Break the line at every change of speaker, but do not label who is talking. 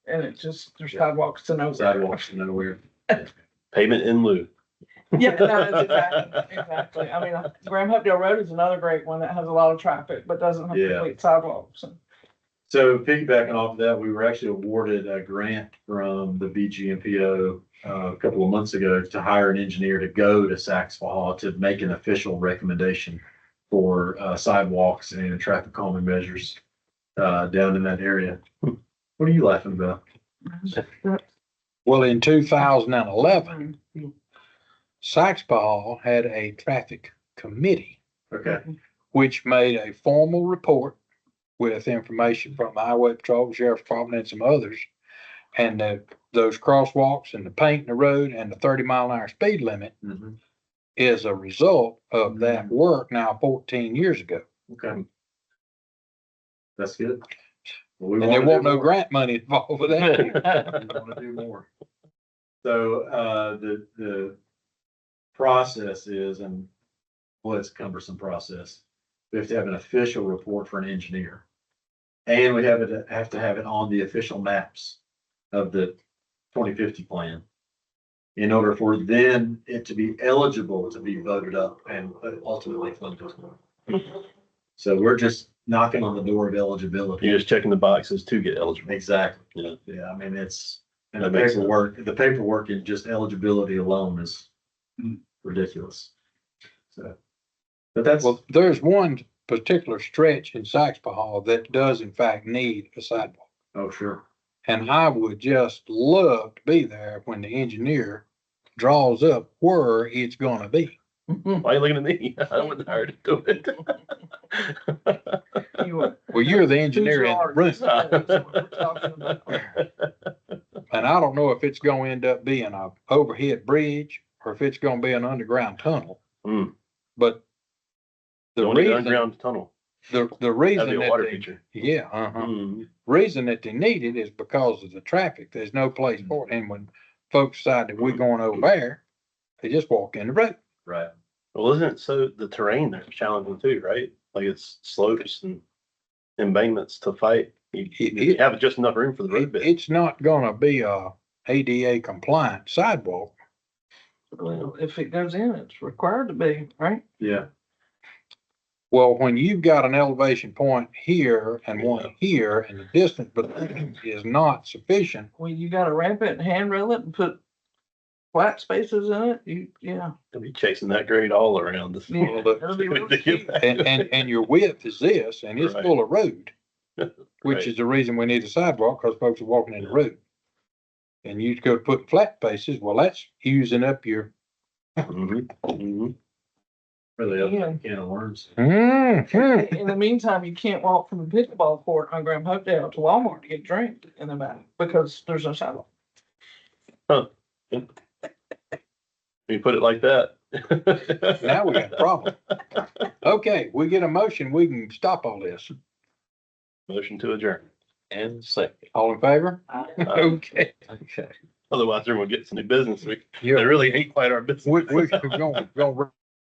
and it just, there's sidewalks to nowhere.
sidewalks to nowhere.
Payment in lieu.
Yeah, no, that's exactly, exactly. I mean, Graham Hopedale Road is another great one that has a lot of traffic, but doesn't have
Yeah.
complete sidewalks. and-
So piggybacking off of that, we were actually awarded a grant from the BGMPO uh, a couple of months ago to hire an engineer to go to Saks Hall to make an official recommendation for uh, sidewalks and traffic calming measures uh, down in that area. What are you laughing about?
Well, in two thousand and eleven,
Um,
Sykes Hall had a traffic committee,
Okay,
which made a formal report with information from the Highway Patrol, Sheriff's Department, and some others. And the, those crosswalks and the paint in the road and the thirty mile an hour speed limit
Mhm.
is a result of that work now fourteen years ago.
okay. That's good. Well, we
And there
wanna do
won't no
more.
grant money involved with that.
That's
We want to do more. So, uh, the, the process is, and well, it's a cumbersome process. We have to have an official report for an engineer. And we have it, have to have it on the official maps of the twenty fifty plan. In order for then it to be eligible to be voted up and ultimately funded. So we're just knocking on the door of eligibility.
You're just checking the boxes to get eligible.
Exactly.
Yeah.
Yeah, I mean, it's, and the
That makes sense.
paperwork, the paperwork and just eligibility alone is ridiculous. So, but that's,
Well, there's one particular stretch in Sykes Hall that does in fact need a sidewalk.
oh, sure.
And I would just love to be there when the engineer draws up where it's gonna be.
Why are you looking at me? I wouldn't hire to do it.
you would-
Well, you're the engineer in the room,
Who's yours? That's what we're talking about.
and I don't know if it's gonna end up being a overhead bridge or if it's gonna be an underground tunnel.
Hmm.
But the
Don't need an
reason,
underground tunnel.
the, the
That'd be
reason
a
that
water
they,
feature.
yeah, uh-huh.
Mm.
reason that they need it is because of the traffic. There's no
Hmm.
place for it. And when folks decide that we're going over there, they just walk in the road.
Right.
Well, isn't it so the terrain there's challenging too, right? Like it's slopes and embankments to fight. You,
It-
you
it-
have just enough room for the road
It-
bed.
It's not gonna be a ADA compliant sidewalk.
Well, If it goes in, it's required to be, right?
Yeah,
Well, when you've got an elevation point here and one here and the distance between is not sufficient,
Well, you gotta ramp it and handrail it and put flat spaces in it, you, yeah.
They'll be chasing that grade all around this.
Yeah, it'll be real steep.
and, and, and your width is this and it's
Right.
full of road.
Right.
Which is the reason we need a sidewalk, cause folks are walking in the road. And you go put flat faces, well, that's using up your,
Mhm, mhm.
really, up
Yeah.
to a can of worms.
Mhm.
In the meantime, you can't walk from the pickleball court on Graham Hopedale to Walmart to get a drink in the back because there's no sidewalk.
You put it like that.
now we got a problem. Okay, we get a motion, we can stop all this.
Motion to adjourn. And second.
All in favor?
Uh,
Okay.
Okay. Otherwise, everyone gets new business. We,
Yeah,
they really ain't quite our business.
we, we're going, going